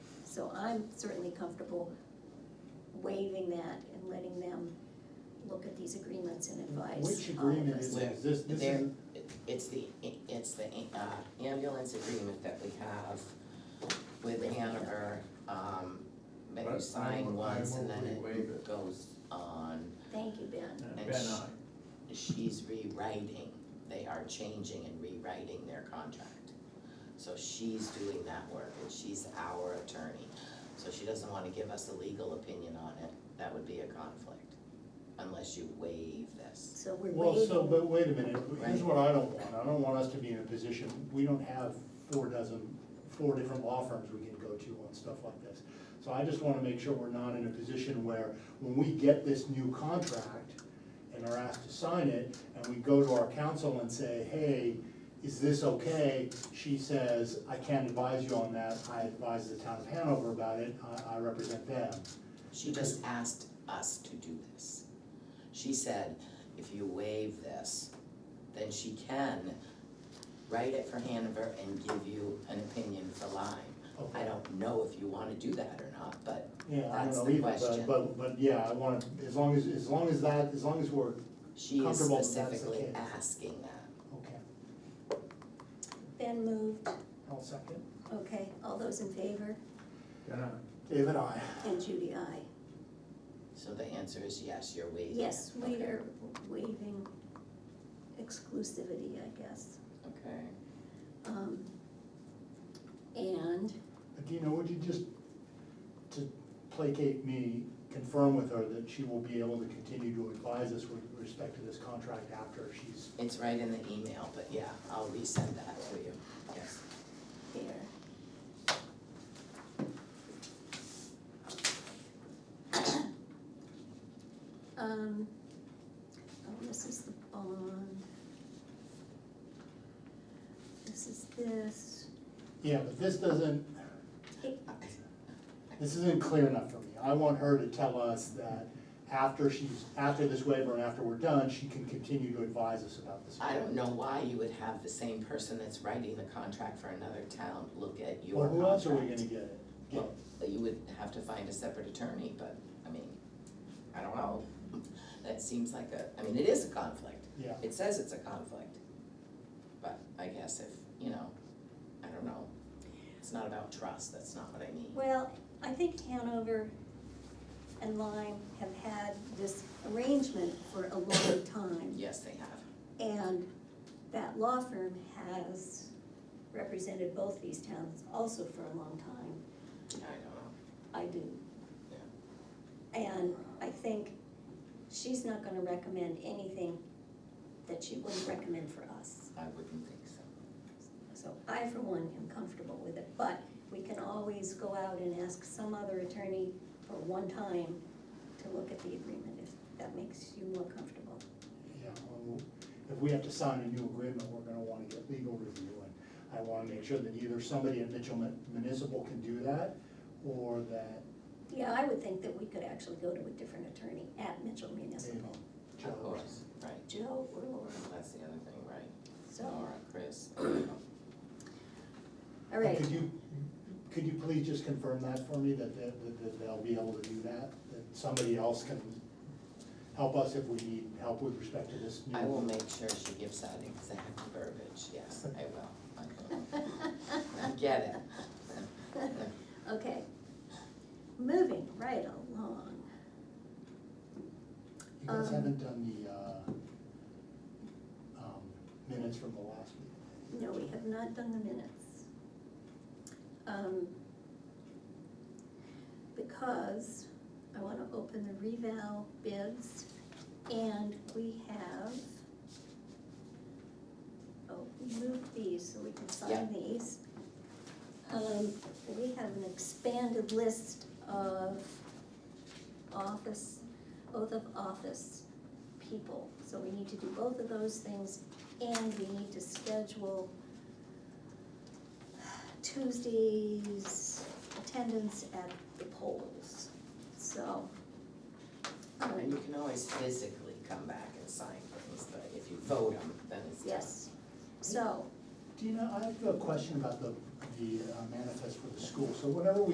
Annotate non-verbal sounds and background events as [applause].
So I'm certainly comfortable waiving that and letting them look at these agreements and advise. Which all of agreement us. is this? This, this There, is, it's the, it's the uh, ambulance agreement that we have with Hanover, um, that you But I sign will- I once and will then re-waive it it. goes on. Thank you, Ben. uh, And Ben, sh- I, She's rewriting, they are changing and rewriting their contract. So she's doing that work and she's our attorney. So she doesn't wanna give us a legal opinion on it, that would be a conflict, unless you waive this. So we're well, so, waiving, but wait a minute, here's what I don't want, I don't want us to be in a position, we don't have four dozen, four different law firms we can go to on stuff like this. So I just wanna make sure we're not in a position where, when we get this new contract and are asked to sign it, and we go to our counsel and say, hey, is this okay? She says, I can't advise you on that, I advise the town of Hanover about it, I, I represent them. She just asked us to do this. She said, if you waive this, then she can write it for Hanover and give you an opinion for Lyme. I don't know if you wanna do that or not, but Yeah, I don't That's know the either, question. but, but, but yeah, I wanna, as long as, as long as that, as long as we're, She is Comfortable if that's the specifically case. asking that. okay, Ben moved, I'll second. okay, all those in favor, Ben, I. David, I, and Judy, I. So the answer is yes, you're waiving. it. Yes, we Okay. are waiving exclusivity, I guess. Okay. Um, And, Adina, would you just, to placate me, confirm with her that she will be able to continue to advise us with respect to this contract after she's, It's right in the email, but yeah, I'll resend that to you, yes. there. [coughs] Um, oh, this is the bond. This is this, yeah, but this doesn't, I- this isn't clear enough for me. I want her to tell us that after she's, after this waiver and after we're done, she can continue to advise us about this. I don't know why you would have the same person that's writing the contract for another town look at your Well, contract. who else are we gonna get it? Get- Well, you would have to find a separate attorney, but, I mean, I don't know. That seems like a, I mean, it is a conflict. Yeah. It says it's a conflict. But I guess if, you know, I don't know, it's not about trust, that's not what I mean. well, I think Hanover and Lyme have had this arrangement for a long time. Yes, they have. And that law firm has represented both these towns also for a long time, I don't know. I do. And I think she's not gonna recommend anything that she wouldn't recommend for us. I wouldn't think so. So I, for one, am comfortable with it, but we can always go out and ask some other attorney for one time to look at the agreement, if that makes you more comfortable. Yeah, well, if we have to sign a new agreement, we're gonna wanna get legal review, and I wanna make sure that either somebody at Mitchell Mun- Municipal can do that, or that Yeah, I would think that we could actually go to a different attorney at Mitchell Dave Municipal, Of Jones. course, right. Joe or Laura, That's the other thing, right? so, Laura, Chris. all right. Could you, could you please just confirm that for me, that, that, that- that they'll be able to do that? That somebody else can help us if we need help with respect to this new. I will make sure she gives that exact verbiage, yes, I will. [laughs] I will. Get it. [laughs] Okay, moving right along. You guys um, haven't done the, uh, um, minutes from the last meeting. No, we have not done the minutes. Um, Because I want to open the revow bids and we have, oh, we moved these so we can Yeah. sign these. Um, We have an expanded list of office, oath of office people. So we need to do both of those things and we need to schedule Tuesday's attendance at the polls. So, And um, you can always physically come back and sign things, but if you vote them, then it's done. yes, so. Dina, I have a question about the, the uh, manifest for the school. So whenever we